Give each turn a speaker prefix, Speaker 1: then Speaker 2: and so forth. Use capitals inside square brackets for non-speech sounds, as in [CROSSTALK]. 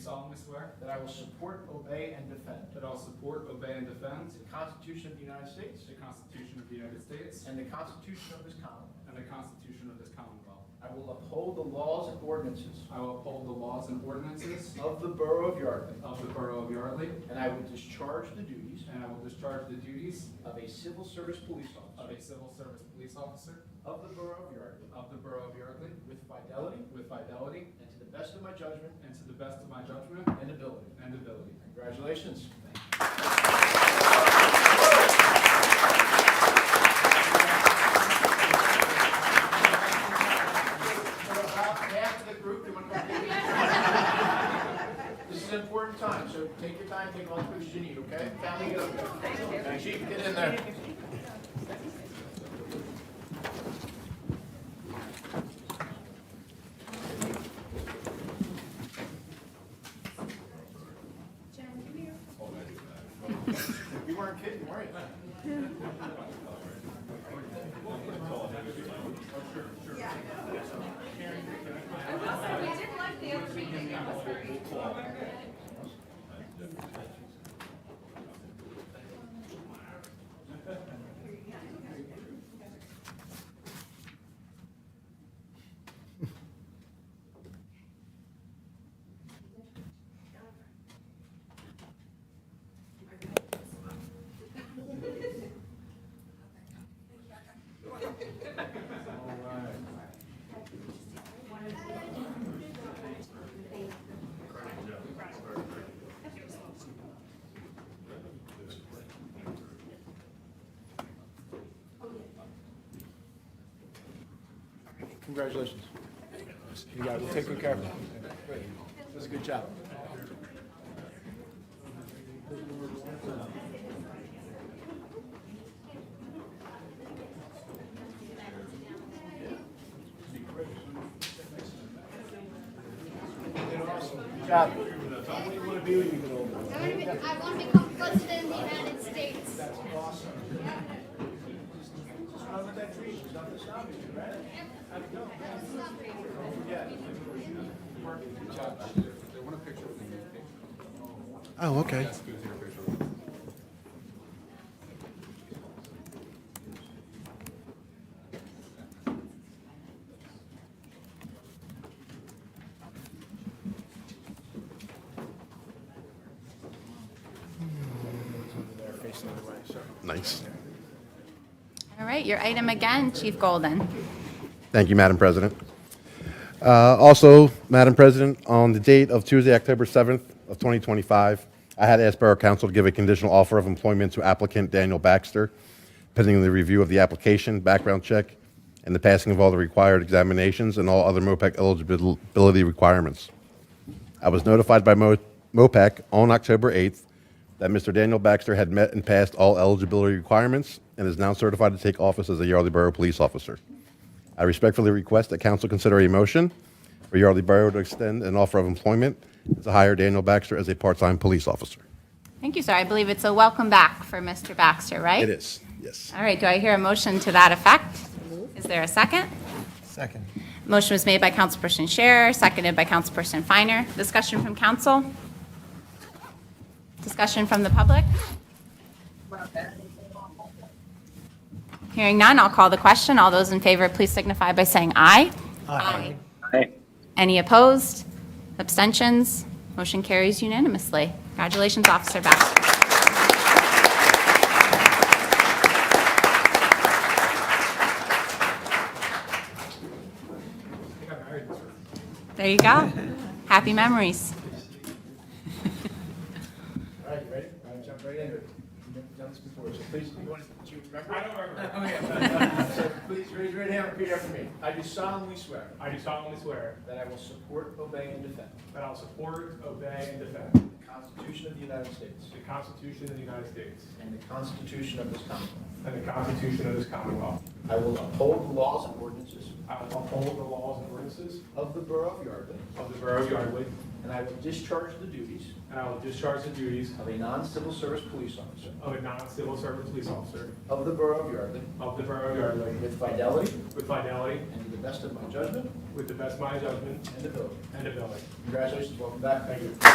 Speaker 1: solemnly swear
Speaker 2: that I will support, obey, and defend
Speaker 1: that I will support, obey, and defend
Speaker 2: the Constitution of the United States
Speaker 1: the Constitution of the United States
Speaker 2: and the Constitution of this Commonwealth.
Speaker 1: and the Constitution of this Commonwealth.
Speaker 2: I will uphold the laws and ordinances
Speaker 1: I will uphold the laws and ordinances
Speaker 2: of the Borough of Yardley,
Speaker 1: of the Borough of Yardley,
Speaker 2: and I will discharge the duties
Speaker 1: and I will discharge the duties
Speaker 2: of a civil service police
Speaker 1: of
Speaker 2: officer
Speaker 1: a civil service police officer
Speaker 2: of the Borough of Yardley
Speaker 1: of the Borough of Yardley
Speaker 2: with fidelity
Speaker 1: with fidelity
Speaker 2: and to the best of my judgment
Speaker 1: and to the best of my judgment
Speaker 2: and ability.
Speaker 1: and ability.
Speaker 2: Congratulations. About half the group, you want to come? This is an important time, so take your time, take all three you need, okay? Family, go. Chief, get in there.
Speaker 3: Jen, come here.
Speaker 2: You weren't kidding, were you?
Speaker 3: I will say, we didn't like the other meeting, it was very.
Speaker 2: Congratulations. You guys will take good care of them. That's a good job. Good job. What do you want to be when you get older?
Speaker 4: I want to be, I want to become president of the United States.
Speaker 2: Awesome. Just run with that tree, she's not the zombie, right? How'd it go? Yeah.
Speaker 1: Judge, they want a picture of the new picture.
Speaker 5: Oh, okay.
Speaker 1: Yes, go to your picture.
Speaker 5: Nice.
Speaker 3: All right, your item again, Chief Golden.
Speaker 5: Thank you, Madam President. Uh, Also, Madam President, on the date of Tuesday, October 7th of 2025, I had asked Borough Council to give a conditional offer of employment to applicant Daniel Baxter, pending the review of the application, background check, and the passing of all the required examinations and all other MOPEC eligibility requirements. I was notified by Mo- MOPEC on October 8th that Mr. Daniel Baxter had met and passed all eligibility requirements and is now certified to take office as a Yardley Borough Police Officer. I respectfully request that council consider a motion for Yardley Borough to extend an offer of employment to hire Daniel Baxter as a part-time police officer.
Speaker 3: Thank you, sir. I believe it's a welcome back for Mr. Baxter, right?
Speaker 5: It is, yes.
Speaker 3: All right, do I hear a motion to that effect? Is there a second?
Speaker 6: Second.
Speaker 3: Motion was made by Councilperson Scherer, seconded by Councilperson Finer. Discussion from council? Discussion from the public? Hearing none, I'll call the question. All those in favor, please signify by saying aye. Aye. Any opposed? Abstentions? Motion carries unanimously. Congratulations, Officer Baxter.
Speaker 1: I think I married this one.
Speaker 3: There you go. Happy memories.
Speaker 2: All right, you ready? All right, jump right into it. You've never done this before, so please, do you want to, do you remember? I don't [LAUGHS] remember. So please raise your right hand and repeat after me. I do solemnly swear
Speaker 1: I do solemnly swear
Speaker 2: that I will support, obey, and defend
Speaker 1: that I will support, obey, and defend
Speaker 2: the Constitution of the United States
Speaker 1: the Constitution of the United States
Speaker 2: and the Constitution of this Commonwealth.
Speaker 1: and the Constitution of this Commonwealth.
Speaker 2: I will uphold the laws and ordinances
Speaker 1: I will uphold the laws and ordinances
Speaker 2: of the Borough of Yardley,
Speaker 1: of the Borough of Yardley,
Speaker 2: and I will discharge the duties
Speaker 1: and I will discharge the duties
Speaker 2: of a non-civil service police officer
Speaker 1: of a non-civil service police officer
Speaker 2: of the Borough of Yardley
Speaker 1: of the Borough of Yardley
Speaker 2: with fidelity
Speaker 1: with fidelity,
Speaker 2: and to the best of my judgment
Speaker 1: with the best of my judgment
Speaker 2: and ability.
Speaker 1: and ability.
Speaker 2: Congratulations, welcome back. Thank you.